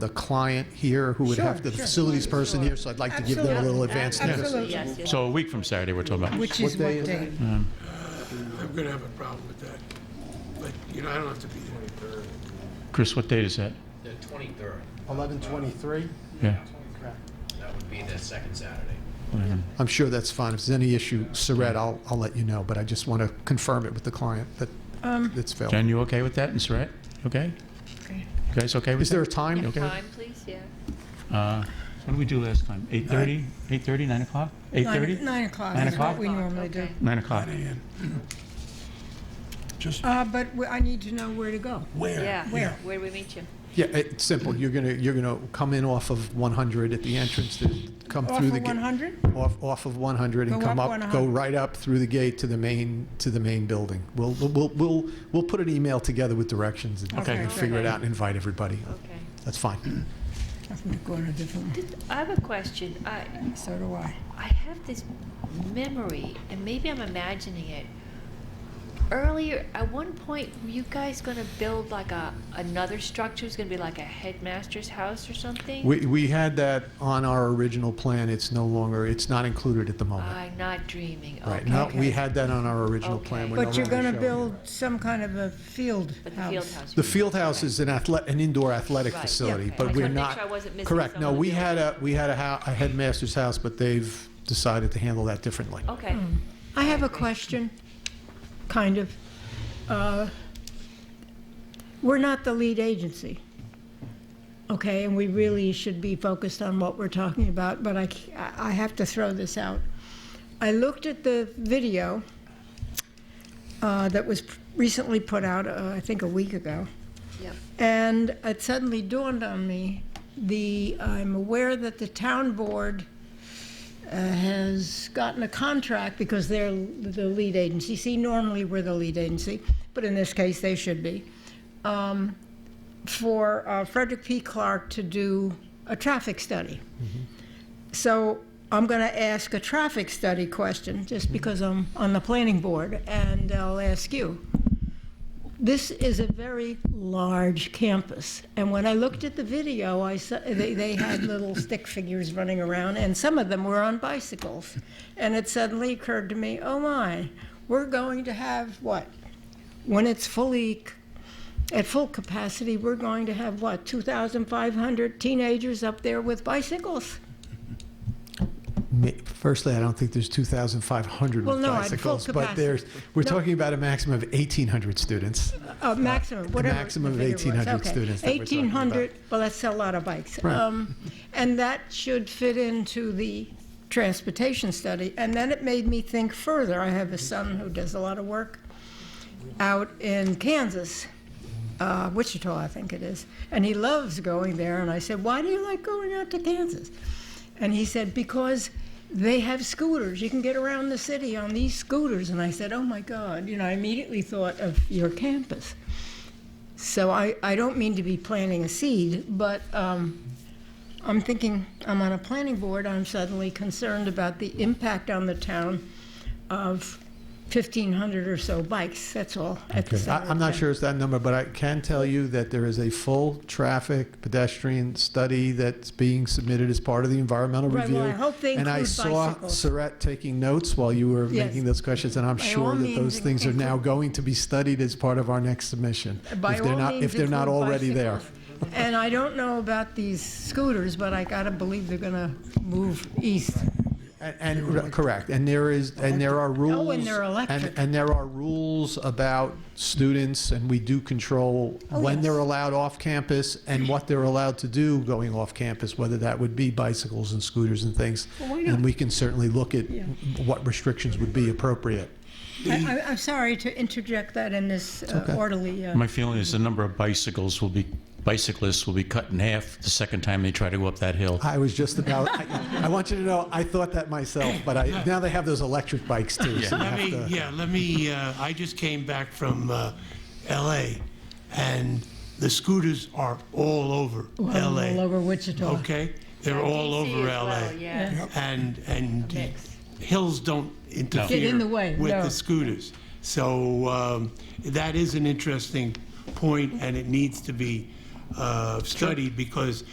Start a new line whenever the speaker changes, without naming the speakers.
the client here, who would have
Sure,
the
sure.
facilities person here, so I'd like to give them a little advance notice.
Absolutely.
Yes, yes.
So a week from Saturday, we're talking about.
Which is
What day is
what day?
I'm gonna have a problem with that. Like, you know, I don't have to be there.
Chris, what date is that?
The 23rd,
11:23?
Yeah.
that would be the second Saturday.
I'm sure that's fine. If there's any issue, Saret, I'll, I'll let you know, but I just want to confirm it with the client that
Um,
it's failed.
Jen, you okay with that? And Saret, okay?
Okay.
You guys okay with
Is there a
that?
time?
Okay.
Time, please, yeah.
Uh, What did we do last time? 8:30? 8:30, 9 o'clock?
Nine
8:30?
nine o'clock
Nine
is
o'clock?
what we normally do.
Okay.
9 o'clock.
Just
Uh, But we- I need to know where to go.
where?
Yeah,
Where?
where do we meet you?
Yeah, it's simple. You're going to, you're going to come in off of 100 at the entrance, to come
Off
through the.
of
gate.
100?
Off, off of 100 and
Go
come
up
up, go
100.
right up through the gate to the main, to the main building. We'll, we'll, we'll, we'll put an email together with directions and
Okay.
and figure it out and invite everybody.
Okay.
That's fine.
I think we're going a different one.
Did- I have a question. I,
So do I.
I have this memory, and maybe I'm imagining it. Earlier, at one point, were you guys going to build like a, another structure? It's going to be like a headmaster's house or something?
We, we had that on our original plan. It's no longer, it's not included at the moment.
I'm not dreaming, Uh, okay.
Right, no, we had that on our original plan.
Okay.
We're no
But you're
longer
going to
showing it.
build some kind of a field
But the field
house.
house.
The field house is an athlete, an indoor athletic
Right,
facility,
okay. I
but
just
we're
wanted to make
not.
sure I wasn't missing
Correct,
some
no,
of the
we had a, we had a hou- a headmaster's house, but they've decided to handle that differently.
Okay.
I have a question, kind of. Uh, We're not the lead agency, okay? And we really should be focused on what we're talking about, but I, c- I- I have to throw this out. I looked at the video uh, that was recently put out, uh, I think a week ago.
Yep.
And it suddenly dawned on me, the, I'm aware that the town board uh, has gotten a contract because they're the lead agency. See, normally we're the lead agency, but in this case, they should be. um, For uh, Frederick P. Clark to do a traffic study. So I'm going to ask a traffic study question, just because I'm on the planning board, and I'll ask you. This is a very large campus, and when I looked at the video, I saw, they, they had little stick figures running around, and some of them were on bicycles. And it suddenly occurred to me, oh my, we're going to have what? When it's fully, c- at full capacity, we're going to have what, 2,500 teenagers up there with bicycles?
Ma- Firstly, I don't think there's 2,500
Well,
with
no, at full
bicycles, but
capacity.
there's, we're
No.
talking about a maximum of 1,800 students.
Uh, maximum, whatever. the
maximum of
figure was.
1,800
Okay.
students that we're talking about.
1,800, well, that's a lot of bikes.
Right.
Um, And that should fit into the transportation study. And then it made me think further. I have a son who does a lot of work out in Kansas, uh, Wichita, I think it is. And he loves going there. And I said, Why do you like going out to Kansas? And he said, Because they have scooters. You can get around the city on these scooters. And I said, Oh my God. You know, I immediately thought of your campus. So I, I don't mean to be planting a seed, but um, I'm thinking, I'm on a planning board, I'm suddenly concerned about the impact on the town of 1,500 or so bikes, that's all. at the
I-
center
I'm
of
not
town.
sure it's that number, but I can tell you that there is a full traffic pedestrian study that's being submitted as part of the environmental
Right,
review.
well, I hope they
And I
include
saw
bicycles.
Saret taking notes while you were
Yes.
making those questions, and I'm
By all
sure that
means,
those
in-
things are now
include-
going to be studied as part of our next submission.
By
if they're
all
not-
means,
If they're not
include
already there.
bicycles. And I don't know about these scooters, but I gotta believe they're gonna move east.
And- And, re- correct, and there is, and there are rules.
Oh, and they're electric.
And, and there are rules about students, and we do control
Oh,
when
yes.
they're allowed off campus and what they're allowed to do going off campus, whether that would be bicycles and scooters and things.
Well, why
And
not?
we can certainly look at what restrictions would be appropriate.
I, I- I'm sorry to interject that in this uh,
okay.
orderly, uh,
My feeling is the number of bicycles will be, bicyclists will be cut in half the second time they try to go up that hill.
I was just about, I, I want you to know, I thought that myself, but I, now they have those electric bikes too, so you have
Let me,
to.
yeah, let me, uh, I just came back from uh, LA, and the scooters are all over
all
LA.
over Wichita.
Okay? They're all
DC
over
as
LA.
well, yeah.
And, and
mix.
hills don't interfere.
Get in the way,
With
no.
the scooters. So um, that is an interesting point, and it needs to be uh, studied, because